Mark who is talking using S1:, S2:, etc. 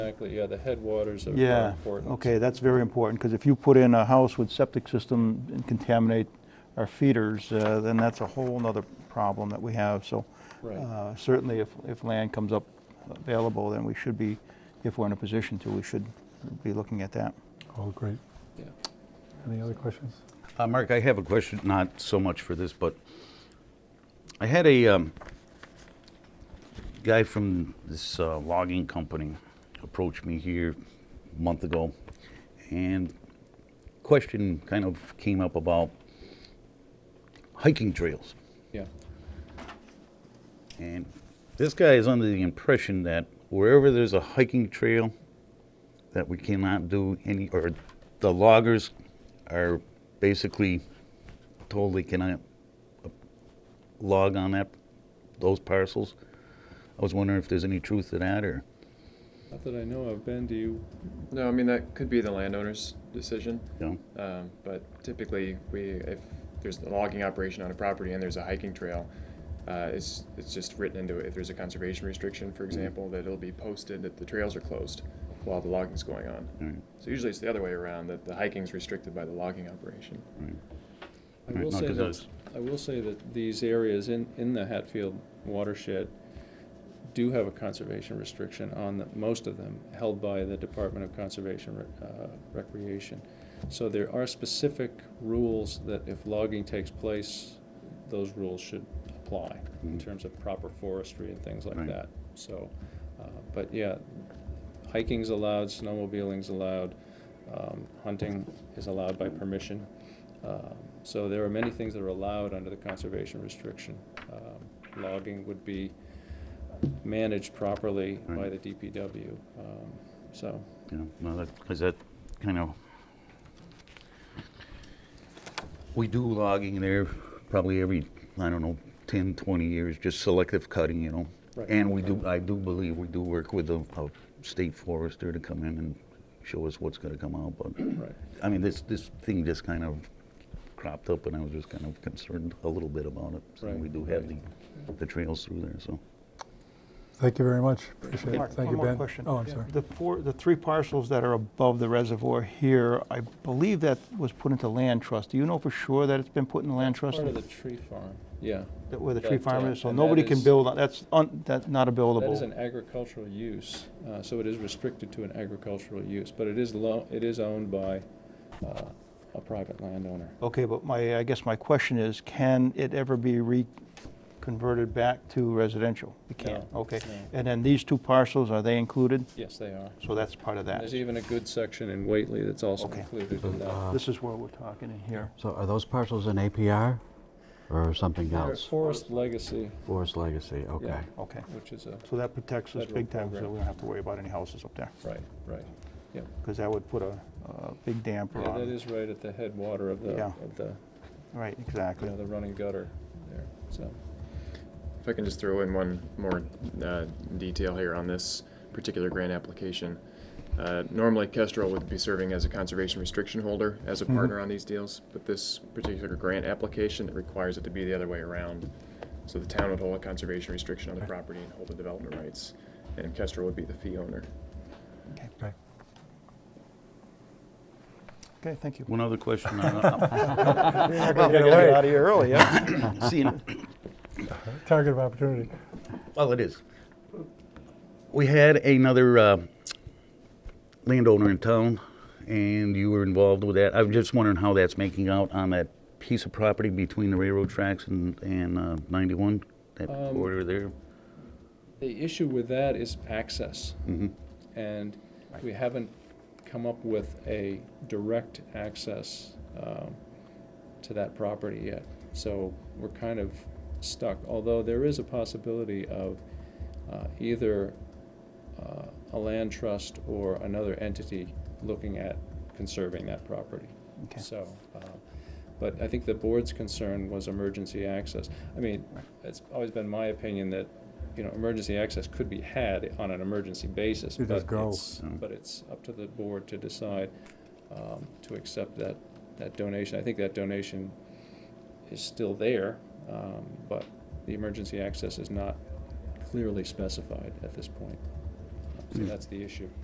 S1: exactly, yeah, the headwaters are are
S2: Yeah,
S1: important.
S2: okay, that's very important, because if you put in a house with septic system and contaminate our feeders, uh, then that's a whole nother problem that we have, so.
S1: Right.
S2: uh, Certainly, if, if land comes up available, then we should be, if we're in a position to, we should be looking at that.
S3: Oh, great.
S1: Yeah.
S3: Any other questions?
S4: Uh, Mark, I have a question, not so much for this, but I had a um, guy from this uh, logging company approach me here a month ago, and question kind of came up about hiking trails.
S1: Yeah,
S4: And this guy is under the impression that wherever there's a hiking trail, that we cannot do any, or the loggers are basically told they cannot uh, log on that, those parcels. I was wondering if there's any truth to that, or,
S1: not that I know of, Ben, do you,
S5: No, I mean, that could be the landowner's decision,
S4: you know?
S5: um, but typically, we, if there's a logging operation on a property and there's a hiking trail, uh, it's, it's just written into it, if there's a conservation restriction, for example, that it'll be posted that the trails are closed while the logging's going on.
S4: Alright,
S5: So usually it's the other way around, that the hiking's restricted by the logging operation.
S4: alright.
S1: I
S4: Right,
S1: will
S4: no,
S1: say
S4: 'cause I
S1: that,
S4: was-
S1: I will say that these areas in, in the Hatfield watershed do have a conservation restriction on the, most of them, held by the Department of Conservation Re- uh, Recreation. So there are specific rules that if logging takes place, those rules should apply in
S4: Mhm.
S1: terms of proper forestry and things like
S4: Right.
S1: that. So, uh, but yeah, hiking's allowed, snowmobiling's allowed, um, hunting is allowed by permission. Um, So there are many things that are allowed under the conservation restriction. Um, Logging would be managed properly by the
S4: Right.
S1: DPW, um, so.
S4: Yeah, no, that, because that kind of, we do logging there probably every, I don't know, 10, 20 years, just selective cutting, you know?
S1: Right.
S4: And we do, I do believe we do work with a, a state forester to come in and show us what's gonna come out, but,
S1: Right.
S4: I mean, this, this thing just kind of cropped up and I was just kind of concerned a little bit about it. So
S1: Right,
S4: We do have the,
S1: right.
S4: the trails through there, so.
S3: Thank you very much. Appreciate it.
S2: Mark,
S3: Thank you, Ben.
S2: One more question.
S3: Oh, I'm sorry.
S2: The four, the three parcels that are above the reservoir here, I believe that was put into land trust. Do you know for sure that it's been put in the land trust?
S1: Part of the tree farm, yeah.
S2: that- Where the tree
S1: that, uh,
S2: farm is, so
S1: and that
S2: nobody can
S1: is-
S2: build, on that's, un- that's not a buildable.
S1: That is an agricultural use, uh, so it is restricted to an agricultural use, but it is lo, it is owned by uh, a private landowner.
S2: Okay, but my, I guess my question is, can it ever be reconverted back to residential? It can't,
S1: No,
S2: okay.
S1: no.
S2: And then these two parcels, are they included?
S1: Yes, they are.
S2: So that's part of that.
S1: There's even a good section in Whately that's also
S2: Okay.
S1: included in that.
S6: Uh,
S2: This is where we're talking in here.
S6: So are those parcels in APR or something
S1: They're
S6: else?
S1: Forest Legacy,
S6: Forest Legacy, okay.
S2: Okay,
S1: which is a,
S2: so that protects us
S1: Federal
S2: big time, so
S1: program.
S2: we don't have to worry about any houses up there,
S1: right, right. Yeah,
S2: because that would put a, a big damper
S1: yeah, that
S2: on.
S1: is right at the headwater of the,
S2: Yeah.
S1: of the,
S2: Right,
S1: you
S2: exactly.
S1: know, the running gutter there, so.
S5: If I can just throw in one more uh, detail here on this particular grant application. Uh, Normally, Kestrel would be serving as a conservation restriction holder as a partner on these deals, but this particular grant application, it requires it to be the other way around. So the town would hold a conservation restriction on the property and hold the development rights, and Kestrel would be the fee owner.
S3: Okay.
S2: Okay, thank you.
S4: One other question. uh, on-
S2: Gotta
S3: get away.
S2: Out of here early, yeah.
S4: Seeing,
S3: Target of opportunity.
S4: Well, it is. We had another uh, landowner in town, and you were involved with that. I'm just wondering how that's making out on that piece of property between the railroad tracks and, and uh, 91, that
S1: Um,
S4: border there.
S1: The issue with that is access,
S4: hmm
S1: and we haven't come up with a direct access um, to that property yet. So we're kind of stuck, although there is a possibility of uh, either uh, a land trust or another entity looking at conserving that property.
S2: Okay.
S1: So, uh, but I think the board's concern was emergency access. I mean, it's always been my opinion that, you know, emergency access could be had on an emergency basis.
S3: You just
S1: but
S3: go.
S1: it's- But it's up to the board to decide um, to accept that, that donation. I think that donation is still there, um, but the emergency access is not clearly specified at this point. So that's the issue.